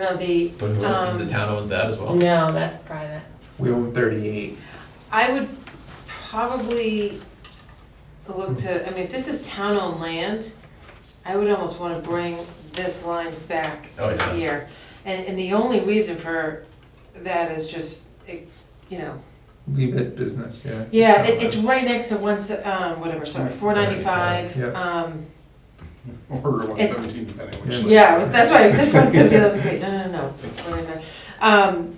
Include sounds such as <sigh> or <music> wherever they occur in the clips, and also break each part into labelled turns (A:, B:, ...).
A: no, the,
B: But who-
A: Um,
B: the town owns that as well?
C: No, that's private.
D: We own thirty-eight.
A: I would probably look to, I mean, if this is town-owned land, I would almost wanna bring this line back
B: Oh, yeah.
A: to here. And, and the only reason for that is just, it- you know,
D: Leave it business, yeah.
A: yeah,
D: kinda
A: it, it's right next to one, se- um, whatever, sorry, four ninety-five,
D: Yeah.
A: um,
E: Or one
A: It's-
E: seventeen, depending
D: Yeah.
E: which.
A: Yeah, it was- that's why I said front
E: <laughs>
A: seventy, that was great, no, no, no, it's really not. Um,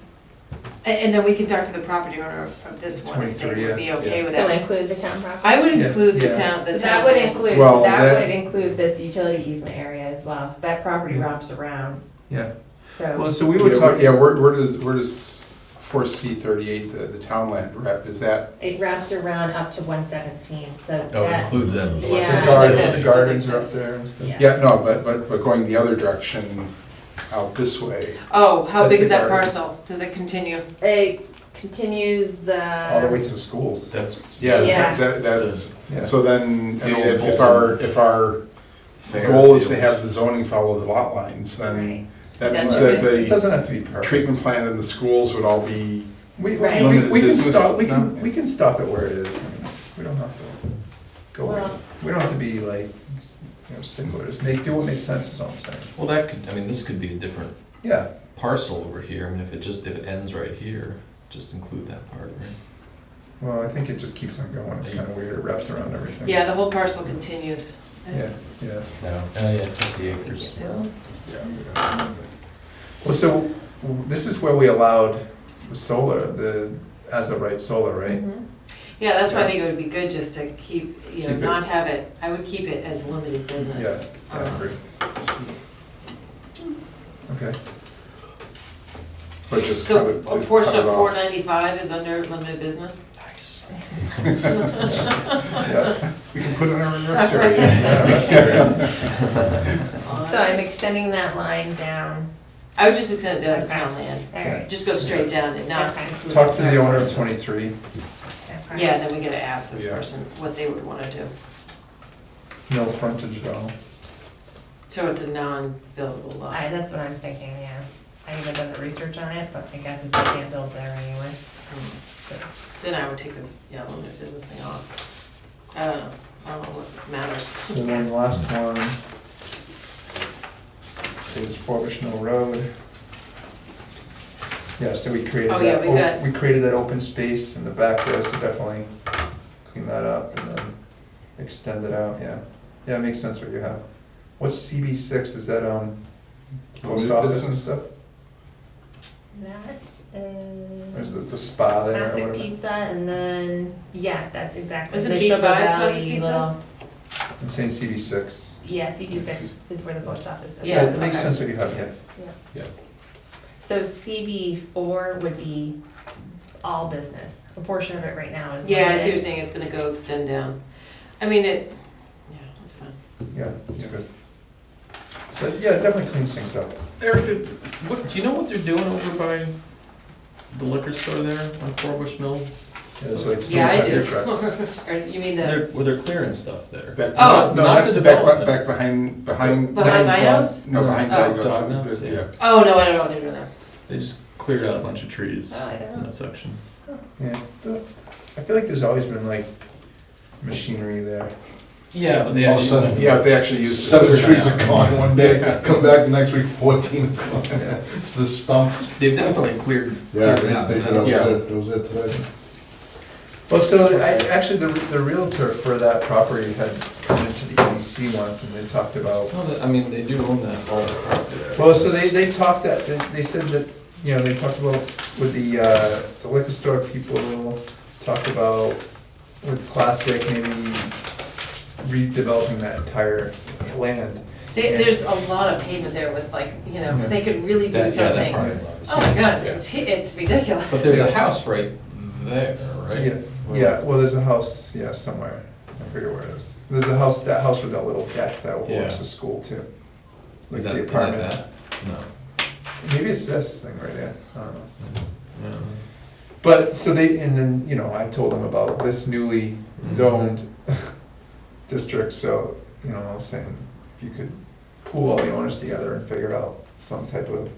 A: a- and, then we can talk to the property owner of of this one, if they
D: 23,
A: would be
D: yeah.
A: okay with
C: So
A: that.
C: include the town property.
A: I would
D: Yeah,
A: include the
D: yeah.
A: town, the
C: So
A: town.
C: that would include,
D: Well,
C: so that
D: that-
C: would include this utility easement area as well, so that property
D: Yeah.
C: wraps around,
D: Yeah, well,
C: so.
D: so we were
E: Yeah, where-
D: talking,
E: Yeah, where, where does, where does four C thirty-eight, the, the town land rep, is that,
C: It wraps around up to one seventeen, so
B: Oh, it
C: that,
B: includes them.
C: Yeah.
D: the gardens,
A: this,
D: the gardens are up
A: this.
D: there and stuff.
C: Yeah.
E: yeah, no, but, but, but going the other direction out this way,
A: Oh, how
D: That's
A: big
D: the
A: is that
D: garden.
A: parcel? Does it continue?
C: it continues the.
E: all the way to the schools.
B: That's
E: Yeah,
C: Yeah.
E: is that, that's, so then, I mean, if if our, if our
B: fair.
E: goal is to
B: fields.
E: have the zoning follow the lot lines,
C: Right.
E: then that
A: That's
E: means that
D: It
E: the
D: doesn't have to be perfect.
E: treatment plan and the schools would all be,
D: We,
C: Right.
D: we, we can
E: Business,
D: stop, we
E: no?
D: can, we can stop it where it is, I mean, we don't have to go, in.
C: Well-
D: we don't have to be like, you know, sticklers, make, do what makes sense is all I'm saying.
B: Well, that could, I mean, this could be a different
D: Yeah,
B: parcel over here, I mean, if it just, if it ends right here, just include that part, right?
D: well, I think it just keeps on going, it's kinda weird, it wraps around everything.
A: Yeah, the whole parcel continues.
D: Yeah, yeah.
B: No, oh yeah, fifty
C: <laughs>
B: acres.
E: yeah.
D: Well, so w- this is where we allowed the solar, the as of right solar, right?
A: Yeah, that's why I think it would be good just to keep, you know,
D: Keep it.
A: not have it, I would keep it as limited business.
D: Yeah, I
A: Um,
D: agree. Okay,
E: But just cut
A: So
E: it,
A: a
E: cut it
A: portion of four
E: off.
A: ninety-five is under limited business?
B: Nice.
A: <laughs>
D: yeah,
E: <laughs> We can put it in a reverse stereo. <laughs>
D: yeah, that's great.
A: <laughs>
C: So I'm extending that line down,
A: I would just extend it down to town land,
C: alright.
A: just go straight down and not.
C: Okay.
A: include
D: Talk to the
A: entire
D: owner of
A: parcel.
D: twenty-three,
A: Yeah, then we gotta ask this
E: Yeah.
A: person what they would wanna do.
D: no frontage at all.
A: So it's a non-buildable lot.
C: I, that's what I'm thinking, yeah. I haven't done the research on it, but I guess it's can't build there anyway. so.
A: Then I would take the, yeah, limited business thing off. I don't know, I don't know what matters.
D: So then the last one is Forbush Mill Road. Yeah, so we created
A: Oh, yeah,
D: that,
A: we
D: o-
A: got-
D: we created that open space in the back there, so definitely clean that up and then extend it out, yeah. Yeah, it makes sense what you have. What's CB six, is that, um, post
E: Limited
D: office and
E: business?
D: stuff?
C: That is.
D: There's the, the spa there or
C: Classic
D: whatever?
C: pizza and then, yeah, that's exactly.
A: Is it
C: the
A: B5
C: Sugar
A: classic
C: Valley
A: pizza?
C: little-
D: I'm saying CB six.
C: Yeah, CB six is where the post office is.
A: Yeah,
D: It makes
A: okay.
D: sense what you have, yeah.
C: So CB four would be all business. A portion of it right now is.
A: Yeah, I see what you're
C: limited.
A: saying, it's gonna go extend down. I mean, it, yeah, it's fine.
D: Yeah, it's good. So, yeah, it definitely cleans things up.
B: Eric, did- what, do you know what they're doing over by the liquor store there on Four Bush Mill?
D: Yeah, it's like
A: Yeah, I
D: steam
A: do.
D: your
A: <laughs>
D: trucks.
A: Or you mean the,
B: They're, where they're clearing stuff there.
E: Back-
A: Oh.
E: No,
B: Not
E: that's
B: the
E: back,
B: development.
E: back behind, behind.
A: behind my
B: dog-
A: house?
E: No, behind.
A: Oh.
E: Dog-
B: Dog nuts, yeah.
A: Oh, no, I don't know what they're doing there.
B: They just cleared out a bunch of trees
C: Oh, I don't
B: in
C: know.
B: that section.
D: Yeah, the- I feel like there's always been like machinery there.
B: Yeah, but they
F: All of a sudden,
B: actually.
E: Yeah, if they actually use.
F: Seven
B: Just-
F: trees are gone
E: <laughs>
F: one day, come back the next week, fourteen gone. <laughs> It's the stumps.
B: They've definitely cleared, cleared it out.
F: They-
B: and I
F: they-
B: don't-
E: Yeah.
F: That was it today.
D: Well, so I, actually, the, the realtor for that property had come into the EDC once and they talked about,
B: No, that- I mean, they do own that, all that property there.
D: well, so they, they talked that, they, they said that, you know, they talked about with the, uh, the liquor store people, talked about with Classic, maybe redeveloping that entire land.
A: They- There's a lot of pavement there with like, you know,
D: Yeah.
A: they could really do
B: That, yeah, that
A: something.
B: part
A: Oh
B: of it.
A: my god, it's, it's ridiculous.
B: But there's
D: Yeah.
B: a house right there, right?
D: Yeah, yeah, well, there's a house, yeah, somewhere, I forget where it is. There's the house, that house with that little deck that
B: Yeah.
D: overlooks the school too. Like
B: Is that,
D: the
B: is that
D: apartment.
B: that? No.
D: Maybe it's this thing right there, I don't know.
B: No.
D: But, so they, and then, you know, I told them about this newly
B: Mm-hmm.
D: zoned <laughs> district, so, you know, I was saying, if you could pool all the owners together and figure out some type of